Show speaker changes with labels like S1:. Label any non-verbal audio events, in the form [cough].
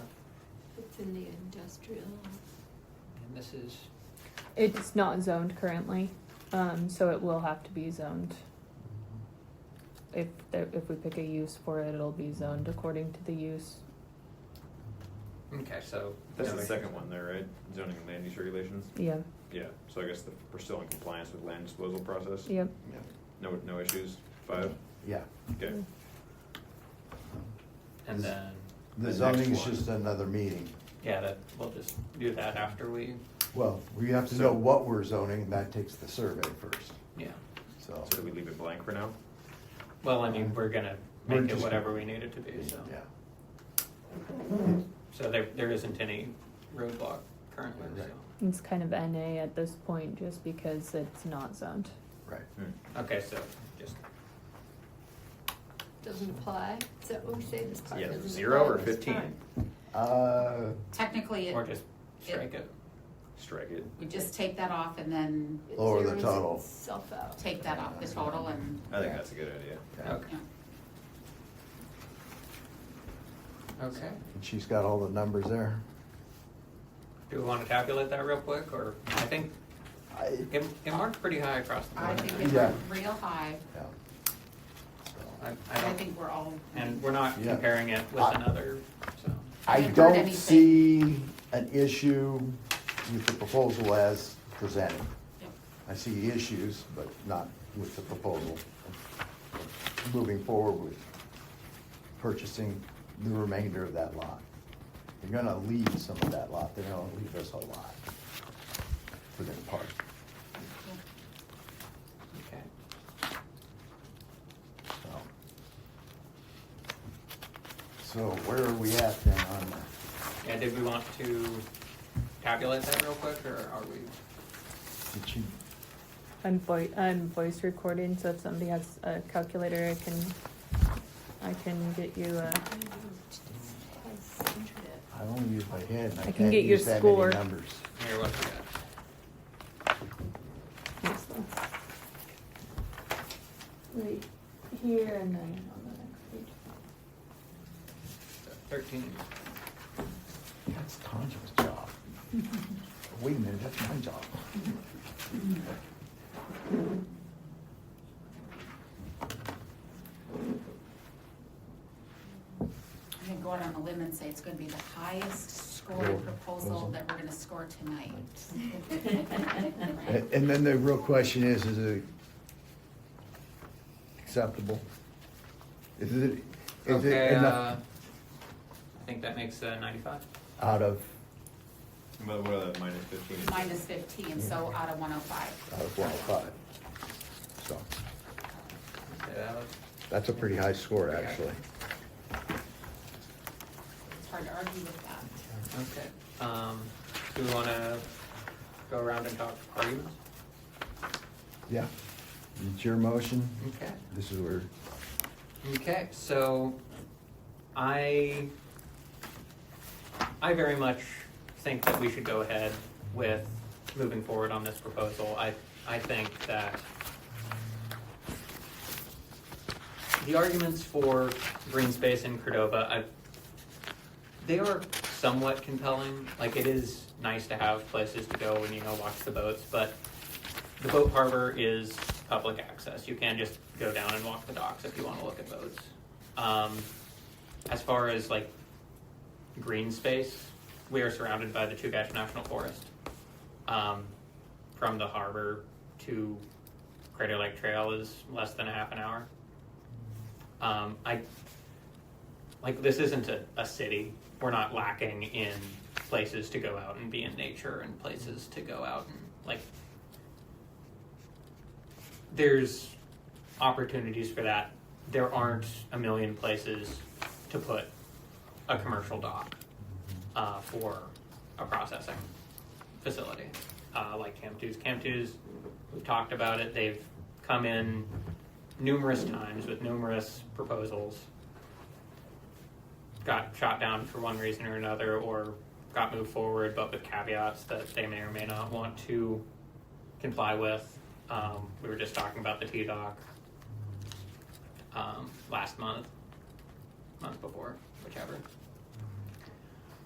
S1: in the industrial.
S2: And this is,
S3: It's not zoned currently, um, so it will have to be zoned. If, there- if we pick a use for it, it'll be zoned according to the use.
S2: okay, so.
S4: That's
S2: no,
S4: the
S2: there's-
S4: second one there, right? Zoning and land use regulations?
S3: Yeah,
S4: Yeah, so I guess the- we're still in compliance with land disposal process?
S3: yep.
S4: No, no issues? Five?
S5: Yeah,
S4: Okay.
S3: Mm.
S2: And then,
S5: the
S4: next
S5: zoning is
S4: one.
S5: just another meeting.
S2: yeah, that, we'll just do that after we,
S5: Well, we have to know what we're zoning, and that takes the survey first,
S2: yeah.
S5: so.
S4: So do we leave it blank for now?
S2: Well, I mean, we're gonna
S5: We're
S2: make it
S5: just-
S2: whatever we need it to be, so.
S5: Yeah,
S2: So there, there isn't any roadblock currently, so.
S3: It's kind of NA at this point, just because it's not zoned.
S5: right.
S2: Okay, so just,
S1: Doesn't apply, is that what we say, this part
S4: Yeah,
S1: doesn't apply?
S4: zero or
S1: at this
S4: 15?
S1: time?
S5: Uh,
S6: Technically,
S2: or
S6: it,
S2: just strike it.
S4: Strike it.
S6: we just take that off and then
S1: It
S5: Lower the
S1: zeroes
S5: total.
S1: Itself out.
S6: take that off the total and,
S4: I think that's a good idea.
S5: yeah.
S2: Okay,
S6: yeah.
S2: okay.
S5: And she's got all the numbers there.
S2: Do we wanna calculate that real quick, or, I think,
S5: I,
S2: it, it marked pretty high across the
S6: I
S2: board.
S6: think it's
S5: Yeah.
S6: real high.
S5: yeah.
S2: I, I
S6: I
S2: don't,
S6: think we're all,
S2: and we're not
S5: Yeah.
S2: comparing it with
S5: I-
S2: another, so.
S5: I
S6: haven't heard
S5: don't
S6: anything.
S5: see an issue with the proposal as presented.
S6: yeah.
S5: I see issues, but not with the proposal. Moving forward with purchasing the remainder of that lot. They're gonna leave some of that lot, they're gonna leave us a lot for their part.
S2: Okay.
S5: so. So where are we at then on the,
S2: Yeah, did we want to calculate that real quick, or are we,
S5: did you,
S3: I'm voi- I'm voice recording, so if somebody has a calculator, I can, I can get you a,
S1: I don't know, it just has internet.
S5: I only use my head and
S3: I
S5: I
S3: can
S5: can't
S3: get your
S5: use that many
S3: score.
S5: numbers.
S2: here, what we got?
S3: here's the- right here and then on the next page.
S2: Thirteen,
S5: That's Tanya's
S3: [laughs]
S5: job. Wait a minute, that's my job.
S6: I can go out on a limb and say it's gonna be the highest
S5: Real
S6: scored proposal
S5: proposal.
S6: that we're gonna score tonight.
S5: A- And then the real question is, is it acceptable? Is it, is it
S2: okay, uh,
S5: enough
S2: I think that makes uh, ninety-five.
S5: out of,
S4: But what are the minus fifteen?
S6: Minus fifteen, so out of one oh five.
S5: out of one oh five? So,
S2: Okay, that looks-
S5: that's a pretty high score, actually.
S6: It's hard to argue with that.
S2: Okay, um, do we wanna go around and talk arguments?
S5: Mm-hmm. Yeah. It's your motion.
S2: Okay.
S5: This is where,
S2: Okay, so I I very much think that we should go ahead with moving forward on this proposal. I I think that the arguments for green space in Cordova, I they are somewhat compelling. Like it is nice to have places to go when you know watch the boats, but the boat harbor is public access. You can just go down and walk the docks if you want to look at boats. Um, as far as like green space, we are surrounded by the Chugach National Forest. Um, from the harbor to Crater Lake Trail is less than a half an hour. Um, I like this isn't a, a city. We're not lacking in places to go out and be in nature and places to go out and like there's opportunities for that. There aren't a million places to put a commercial dock uh, for a processing facility uh, like Camp 2's. Camp 2's, we've talked about it, they've come in numerous times with numerous proposals, got shot down for one reason or another, or got moved forward, but with caveats that they may or may not want to comply with. Um, we were just talking about the T doc um, last month, month before, whichever.